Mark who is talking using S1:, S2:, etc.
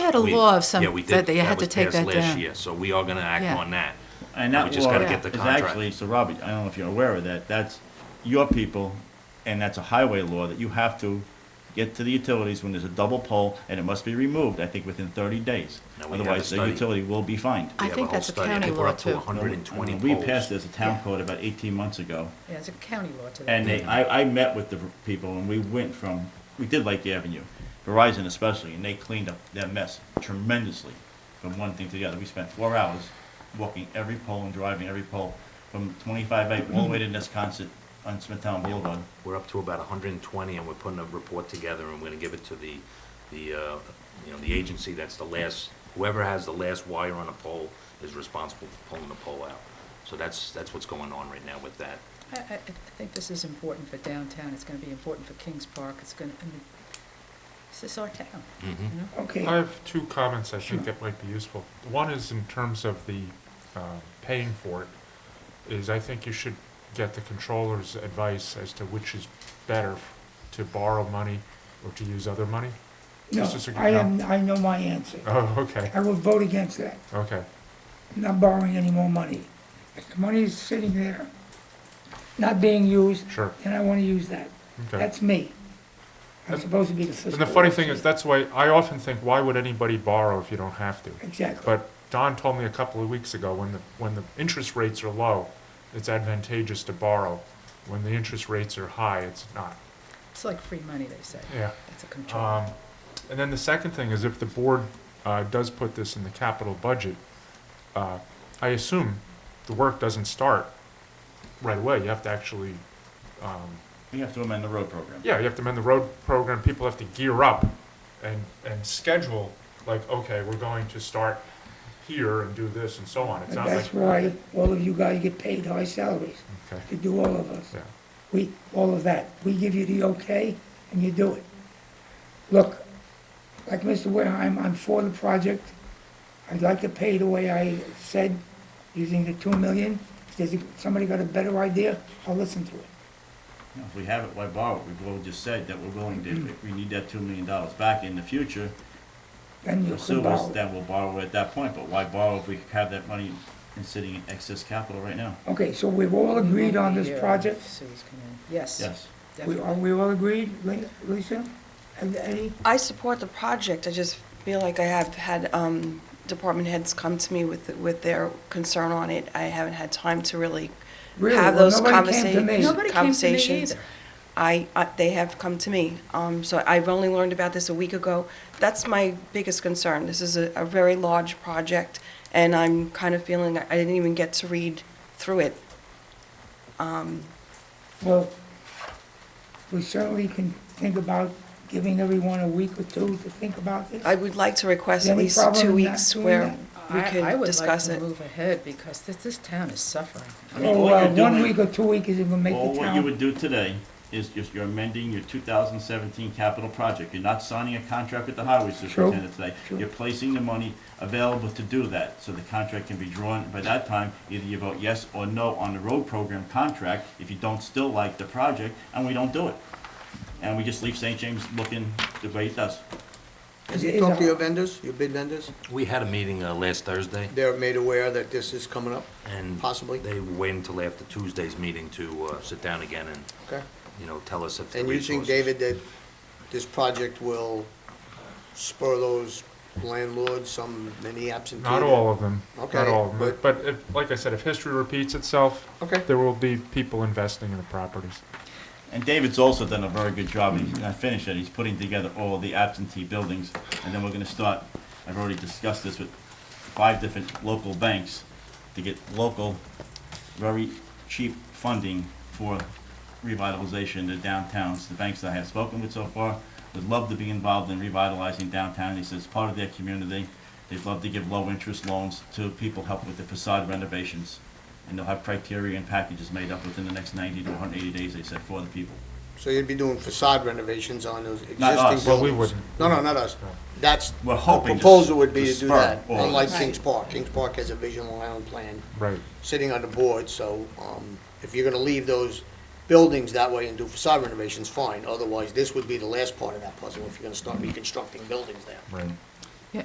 S1: had a
S2: We-
S1: law of some,
S2: yeah, we did.
S1: that they had to
S2: was
S1: take
S2: passed
S1: that
S2: last
S1: down.
S2: year, So we are gonna act
S1: Yeah.
S2: on that.
S3: And that
S2: We just gotta
S3: law
S2: get the
S3: is
S2: contract.
S3: Actually, so Robbie, I don't know if you're aware of that, that's your people, and that's a highway law that you have to get to the utilities when there's a double pole, and it must be removed, I think, within thirty days.
S2: Now, we have a
S3: Otherwise, the
S2: study.
S3: utility will be fined.
S1: I
S2: We have
S1: think
S2: whole
S1: that's a
S2: study. I
S1: county
S2: think we're
S1: law,
S2: up to
S1: too.
S2: 120
S3: We
S2: poles.
S3: passed this, a town code about eighteen months ago,
S4: Yeah, it's a county law to that.
S3: and they, I, I met with the people, and we went from, we did Lake Avenue, Verizon especially, and they cleaned up that mess tremendously from one thing to the other. We spent four hours walking every pole and driving every pole from 25 eight all the way to Nesconset on Smithtown Boulevard.
S2: We're up to about hundred and twenty, and we're putting a report together, and we're gonna give it to the, the, uh, you know, the agency that's the last, whoever has the last wire on a pole is responsible for pulling the pole out. So that's, that's what's going on right now with that.
S4: I, I, I think this is important for downtown, it's gonna be important for Kings Park, it's gonna, I mean, this is our town, you know?
S5: I have two comments I think that might be useful. One is in terms of the uh, paying for it, is I think you should get the controller's advice as to which is better to borrow money or to use other money.
S6: No,
S5: Just a sec-
S6: I am, I know my answer.
S5: Oh, okay,
S6: I will vote against that.
S5: okay.
S6: I'm not borrowing any more money. If the money is sitting there, not being used.
S5: Sure.
S6: Then I want to use that.
S5: Okay.
S6: That's me. I'm supposed to be the fiscal.
S5: And the funny thing is, that's why, I often think, why would anybody borrow if you don't have to?
S6: Exactly.
S5: But Don told me a couple of weeks ago, when the, when the interest rates are low, it's advantageous to borrow. When the interest rates are high, it's not.
S4: It's like free money, they say.
S5: Yeah.
S4: It's a control.
S5: Um, and then the second thing is if the board, uh, does put this in the capital budget, uh, I assume the work doesn't start right away. You have to actually, um,
S3: We have to amend the road program.
S5: yeah, you have to amend the road program. People have to gear up and, and schedule, like, okay, we're going to start here and do this and so on. It's
S6: And
S5: not
S6: that's
S5: like,
S6: why all of you guys get paid high salaries
S5: okay,
S6: to do all of us.
S5: yeah.
S6: We, all of that. We give you the okay, and you do it. Look, like Mr. Wareheim, I'm for the project. I'd like to pay the way I said, using the two million. If there's, somebody got a better idea, I'll listen to it.
S3: You know, If we have it, why borrow it? We've all just said that we're willing to, if we need that $2 million back in the future,
S6: Then you
S3: pursue
S6: could
S3: us,
S6: borrow.
S3: then we'll borrow it at that point. But why borrow if we have that money in sitting in excess capital right now?
S6: Okay, so we've all agreed on this project?
S4: Sue's coming in, yes.
S3: Yes.
S6: We,
S4: definitely.
S6: are we all agreed, Li- Lisa? And Eddie?
S7: I support the project, I just feel like I have had um, department heads come to me with, with their concern on it. I haven't had time to really
S6: Really?
S7: have
S6: Well,
S7: those
S6: nobody came to
S7: conversa-
S6: me.
S4: Nobody came to me
S7: conversations.
S4: either.
S7: I, I- they have come to me, Um, so I've only learned about this a week ago. That's my biggest concern. This is a a very large project, and I'm kind of feeling, I didn't even get to read through it.
S6: Well, we certainly can think about giving everyone a week or two to think about this.
S7: I would like to request
S6: Any
S7: at least
S6: problem
S7: two
S6: in not
S7: weeks
S6: doing
S7: where
S6: that?
S7: we
S4: I- I would
S7: could
S4: like
S7: discuss
S4: to
S7: it.
S4: Move ahead, because this, this town is suffering.
S3: I mean, all
S6: Or
S3: you're
S6: uh, one
S3: doing-
S6: week or two weeks is gonna make
S3: All
S6: the
S3: what you
S6: town.
S3: would do today is just, you're amending your 2017 capital project. You're not signing a contract with the highway superintendent today.
S6: True.
S3: You're placing the money available to do that, so the contract can be drawn. By that time, either you vote yes or no on the road program contract, if you don't still like the project, and we don't do it. And we just leave St. James looking the way it does.
S6: Is-
S8: Have you
S6: is
S8: talked to
S6: a-
S8: your vendors, your bid vendors?
S2: We had a meeting uh, last Thursday,
S8: They're made aware that this is coming up,
S2: and
S8: Possibly.
S2: they wait until after Tuesday's meeting to uh, sit down again and,
S8: okay?
S2: you know, tell us if the
S8: And you
S2: resources.
S8: think, David, that this project will spur those landlords, some many absentee?
S5: Not all of them, not
S8: Okay,
S5: all of them.
S8: but-
S5: But if, like I said, if history repeats itself,
S8: Okay.
S5: there will be people investing in the properties.
S3: And David's also done a very good job, and he's not finished yet, he's putting together all the absentee buildings, and then we're gonna start, I've already discussed this with five different local banks, to get local, very cheap funding for revitalization of downtowns. The banks that I have spoken with so far would love to be involved in revitalizing downtown, they said it's part of their community. They'd love to give low-interest loans to people helping with the facade renovations, and they'll have criteria and packages made up within the next ninety to one hundred eighty days, they said, for the people.
S8: So you'd be doing facade renovations on those existing
S3: Not us.
S8: buildings?
S3: Well,
S5: we wouldn't.
S8: No, no, not us. That's,
S3: We're
S8: the
S3: hoping to s-
S8: proposal would be
S3: to
S8: to do
S3: spur
S8: that,
S3: all of
S8: unlike
S3: this.
S8: Kings Park. Kings Park has a vision land plan
S5: Right.
S8: sitting on the board, so um, if you're gonna leave those buildings that way and do facade renovations, fine. Otherwise, this would be the last part of that puzzle, if you're gonna start reconstructing buildings there.
S5: Right.